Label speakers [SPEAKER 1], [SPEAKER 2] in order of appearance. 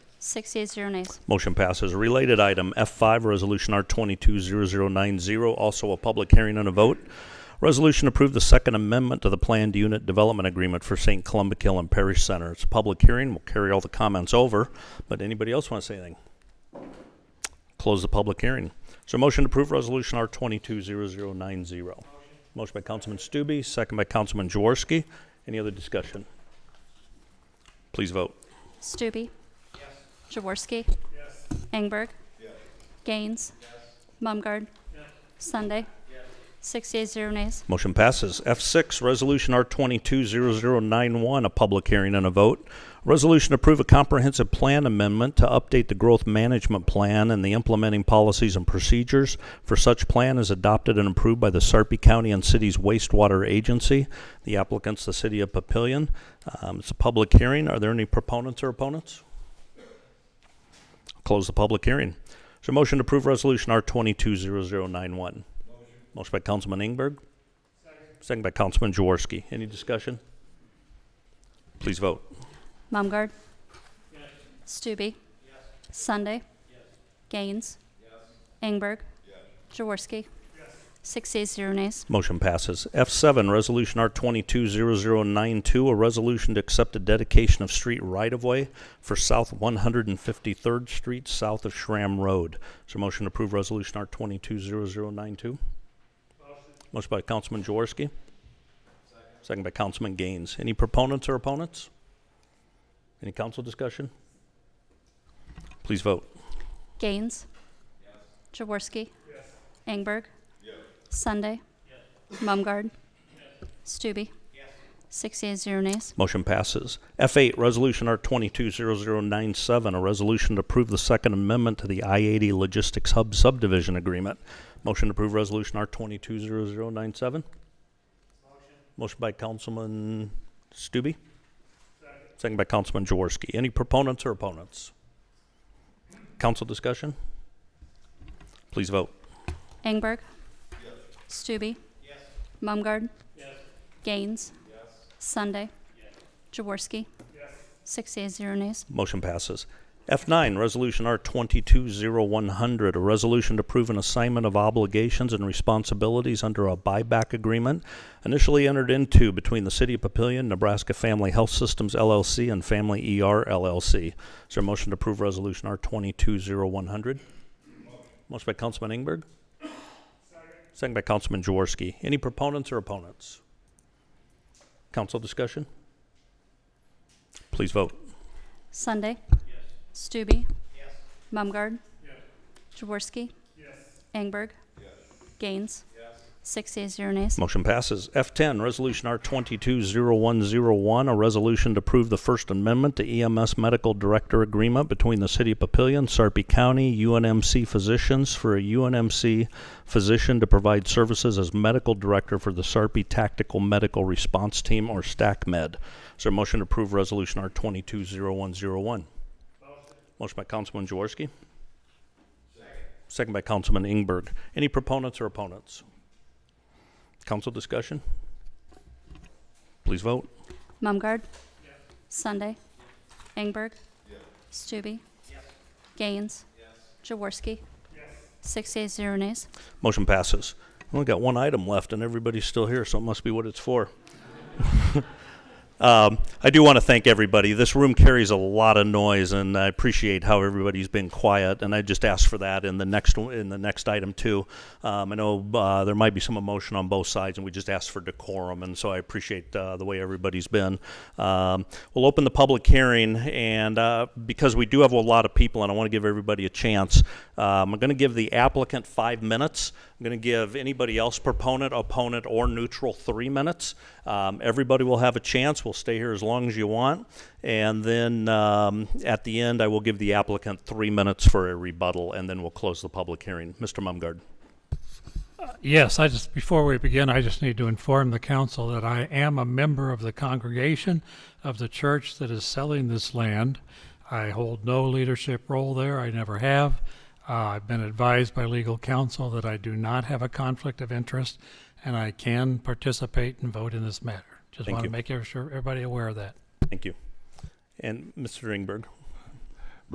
[SPEAKER 1] Six yeas, zero nays.
[SPEAKER 2] Motion passes. Related item, F5, Resolution R220090, also a public hearing and a vote. Resolution approved the Second Amendment to the Planned Unit Development Agreement for St. Columbkill and Parish Center. It's a public hearing. We'll carry all the comments over, but anybody else want to say anything? Close the public hearing. So motion to approve Resolution R220090. Motion by Councilman Stube, second by Councilman Jaworski. Any other discussion? Please vote.
[SPEAKER 1] Stube. Yes. Jaworski.
[SPEAKER 3] Yes.
[SPEAKER 1] Engberg.
[SPEAKER 3] Yes.
[SPEAKER 1] Gaines. Mumgarde. Sunday. Six yeas, zero nays.
[SPEAKER 2] Motion passes. F6, Resolution R220091, a public hearing and a vote. Resolution to approve a comprehensive plan amendment to update the growth management plan and the implementing policies and procedures for such plan as adopted and approved by the Sarpy County and City's wastewater agency. The applicant's the City of Papillion. Um, It's a public hearing. Are there any proponents or opponents? Close the public hearing. Is there a motion to approve Resolution R220091? Motion by Councilman Ingberg. Second by Councilman Jaworski. Any discussion? Please vote.
[SPEAKER 1] Mumgarde. Stube. Sunday. Gaines. Engberg. Jaworski. Six yeas, zero nays.
[SPEAKER 2] Motion passes. F7, Resolution R220092, a resolution to accept a dedication of street right-of-way for South 153rd Street, south of Shram Road. Is there a motion to approve Resolution R220092? Motion by Councilman Jaworski. Second by Councilman Gaines. Any proponents or opponents? Any council discussion? Please vote.
[SPEAKER 1] Gaines. Jaworski. Engberg. Sunday. Mumgarde. Stube. Six yeas, zero nays.
[SPEAKER 2] Motion passes. F8, Resolution R220097, a resolution to approve the Second Amendment to the I-80 Logistics Hub Subdivision Agreement. Motion to approve Resolution R220097? Motion. Motion by Councilman Stube? Second by Councilman Jaworski. Any proponents or opponents? Council discussion? Please vote.
[SPEAKER 1] Engberg. Stube. Mumgarde. Gaines. Sunday. Jaworski. Six yeas, zero nays.
[SPEAKER 2] Motion passes. F9, Resolution R220100, a resolution to approve an assignment of obligations and responsibilities under a buyback agreement initially entered into between the City of Papillion, Nebraska Family Health Systems LLC, and Family ER LLC. Is there a motion to approve Resolution R220100? Motion by Councilman Ingberg. Second by Councilman Jaworski. Any proponents or opponents? Council discussion? Please vote.
[SPEAKER 1] Sunday. Stube. Mumgarde. Jaworski. Engberg. Gaines. Six yeas, zero nays.
[SPEAKER 2] Motion passes. F10, Resolution R220101, a resolution to approve the First Amendment to EMS Medical Director Agreement between the City of Papillion, Sarpy County, UNMC Physicians for a UNMC physician to provide services as medical director for the Sarpy Tactical Medical Response Team, or STACMed. Is there a motion to approve Resolution R220101? Motion by Councilman Jaworski. Second. Second by Councilman Ingberg. Any proponents or opponents? Council discussion? Please vote.
[SPEAKER 1] Mumgarde. Sunday. Engberg. Stube. Gaines. Jaworski. Six yeas, zero nays.
[SPEAKER 2] Motion passes. We Only got one item left, and everybody's still here, so it must be what it's for. um, I do want to thank everybody. This room carries a lot of noise, and I appreciate how everybody's been quiet. And I just ask for that in the next one- in the next item too. Um, I know uh, there might be some emotion on both sides, and we just ask for decorum. And so I appreciate uh, the way everybody's been. Um, we'll open the public hearing, and uh, because we do have a lot of people, and I want to give everybody a chance. Um, I'm going to give the applicant five minutes. I'm going to give anybody else, proponent, opponent, or neutral, three minutes. Um, everybody will have a chance. We'll stay here as long as you want. And then um, at the end, I will give the applicant three minutes for a rebuttal, and then we'll close the public hearing. Mr. Mumgard.
[SPEAKER 4] Yes, I just, before we begin, I just need to inform the council that I am a member of the congregation of the church that is selling this land. I hold no leadership role there, I never have. Uh, I've been advised by legal counsel that I do not have a conflict of interest, and I can participate and vote in this matter. Just
[SPEAKER 2] Thank
[SPEAKER 4] want
[SPEAKER 2] you.
[SPEAKER 4] to make sure everybody aware of that.
[SPEAKER 2] Thank you. And Mr. Ingberg,